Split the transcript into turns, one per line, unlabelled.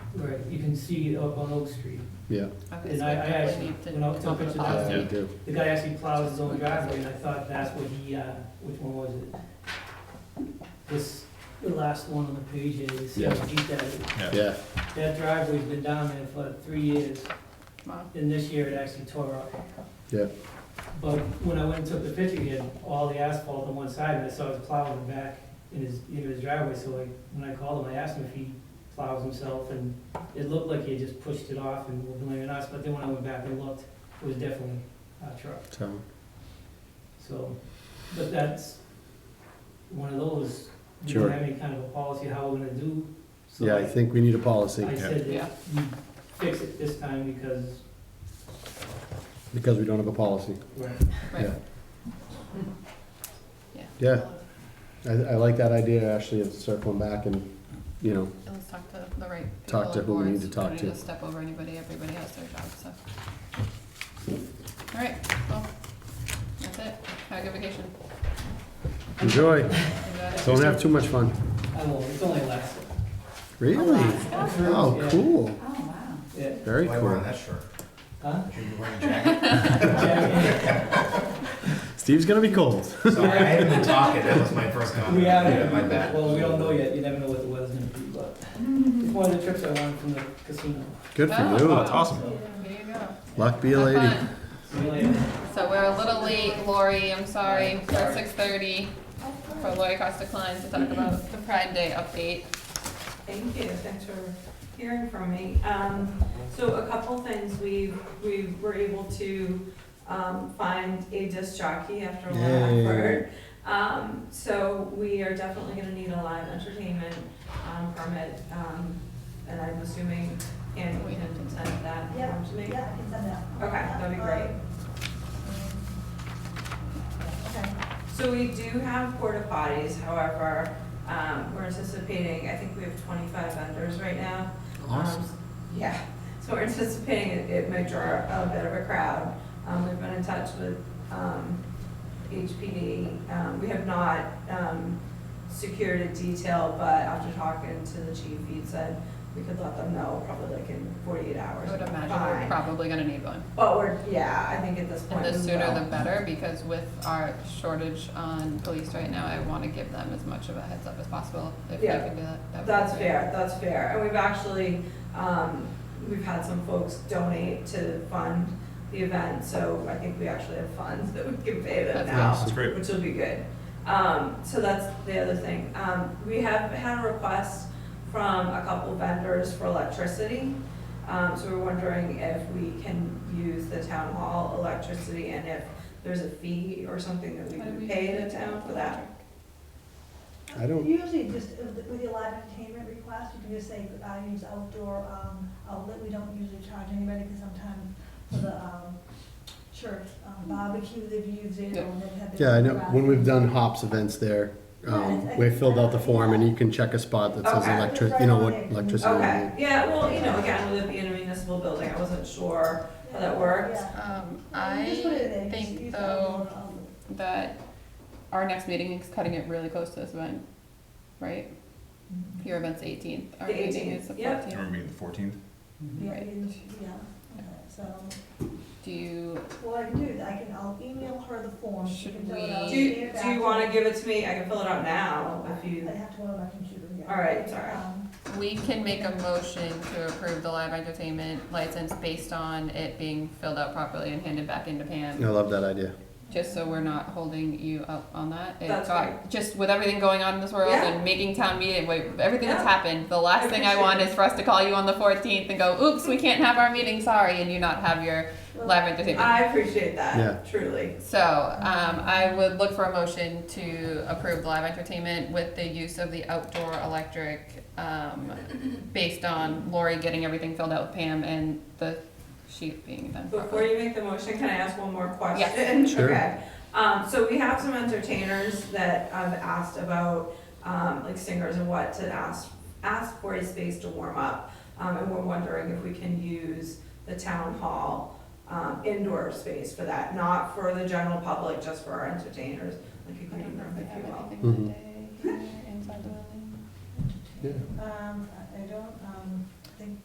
Right, you can see up on Oak Street.
yeah,
Okay,
And
so
I, I
we
actually,
need to
when I took
talk
a picture
about
of
yeah,
that,
we do.
the guy actually plows his own driveway, and I thought that's what he, uh, which one was it? This, the last one on the page here, you see how
Yeah.
deep that is.
Yeah,
That driveway's been down there for like three years,
Wow.
and this year it actually tore up.
Yeah.
But when I went and took the picture, he had all the asphalt on one side, and I saw his plow in the back in his, in his driveway, so like, when I called him, I asked him if he plows himself, and it looked like he had just pushed it off and was blaming us, but then when I went back and looked, it was definitely a truck,
so,
so, but that's one of those, we
Sure.
don't have any kind of a policy how we're gonna do. so
yeah, I think we need a policy,
I said
Yeah.
that you fix it this time because
because we don't have a policy.
we're,
Right.
Yeah.
Yeah.
Yeah, I, I like that idea, Ashley, of circling back and, you know,
And Let's talk to the right people.
Talk to
and
who we need
boards.
to talk
Don't
to.
need to step over anybody, everybody has their job, so. All right, well, that's it, have a good vacation.
enjoy,
You got it.
don't have too much fun.
I won't, it's only last.
Really? Oh,
Yeah.
cool,
Oh, wow.
Yeah,
very
Why wear
cool.
that shirt?
huh?
Should you wear a jacket?
Yeah,
Steve's gonna be cold.
Sorry, I haven't been talking, that was my first comment.
We
Yeah,
haven't,
My bad.
well, we don't know yet, you never know what the weather's gonna be, but it's one of the trips I won from the casino.
Good for
Oh,
you.
wow.
awesome.
There you go.
Luck be a
Have
lady.
fun.
See you later.
So we're a little late, Lori, I'm sorry,
Sorry.
we're at six thirty for Lori Costa Klein to talk about the Pride Day update.
Thank you, thanks for hearing from me. Um, So a couple things, we, we were able to um, find a disc jockey after a lot of
Yay.
effort. Um, So we are definitely gonna need a live entertainment um, permit, um, and I'm assuming Andy
We have
can
to-
send that
Yeah,
form to me.
yeah, I can send that. Um,
Okay, that'd be great.
Okay.
So we do have porta potties, however, um, we're anticipating, I think we have twenty-five vendors right now. Um,
Awesome.
Yeah, so we're anticipating it, it might draw a bit of a crowd. Um, we've been in touch with, um, HPD, um, we have not, um, secured a detail, but after talking to the chief, he said we could let them know probably like in forty-eight
I
hours.
would imagine
Fine.
we're probably gonna need one.
But we're, yeah, I think at this point.
And the
we
sooner
will.
the better, because with our shortage on police right now, I wanna give them as much of a heads up as possible, if we
Yeah.
can do that. that. would be
That's
great.
fair, that's fair, and we've actually, um, we've had some folks donate to fund the event, so I think we actually have funds that we can pay them
That's
now.
awesome. That's
great.
Which will be good. Um, so that's the other thing, um, we have had a request from a couple vendors for electricity. Um, so we're wondering if we can use the town hall electricity and if there's a fee or something that we
How do
can
we-
pay the town for that.
I don't-
Usually just uh, with your live entertainment request, you can just say, I use outdoor um, outlet, we don't usually charge anybody, because sometimes for the um, church um, barbecue, they've used it,
Yeah.
or they've had.
Yeah, I know,
their-
when we've done hops events there, um, we filled out the form and you can check a spot that says
Okay.
electric, you know what electricity. we
Okay,
need.
yeah, well, you know, again, with it being a municipal building, I wasn't sure how that works.
Yeah.
Um,
You just put it in there,
I
you just
think
use
though
outdoor outlet.
that our next meeting is cutting it really close to this event, right?
Mm-hmm.
Your event's eighteenth, our
The
meeting
18th,
is the fourteenth.
yep.
You remember meeting the fourteenth?
Mm-hmm.
Yeah,
Right.
you- yeah, okay, so.
Do you,
What I can do is I can, I'll email her the form. She
Should
can fill it
we-
out,
Do you,
send it
do
back
you wanna give it to me? I can fill it out now if you,
I have to go on my computer, yeah.
All right, sorry.
Um,
we can make a motion to approve the live entertainment license based on it being filled out properly and handed back into Pam.
I love that idea.
Just so we're not holding you up on that. It
That's
got- Just with everything going on in this world
Yeah.
and making town meeting, wait, everything that's
Yeah.
happened, the last
I
thing I
appreciate
want
it.
is for us to call you on the fourteenth and go, oops, we can't have our meeting, sorry, and you not have your
well,
live entertainment.
I appreciate
Yeah.
that, truly.
So, um, I would look for a motion to approve live entertainment with the use of the outdoor electric, um, based on Lori getting everything filled out with Pam and the sheet being done
Before
properly.
you make the motion, can I ask one more question?
Sure.
Okay. Um, so we have some entertainers that have asked about, um, like singers and what to ask, ask for a space to warm up. Um, and we're wondering if we can use the town hall, um, indoor space for that, not for the general public, just for our entertainers, like a
I
green
don't know if
room,
we
if you
have
will.
anything that day here inside the building.
Yeah.
Um,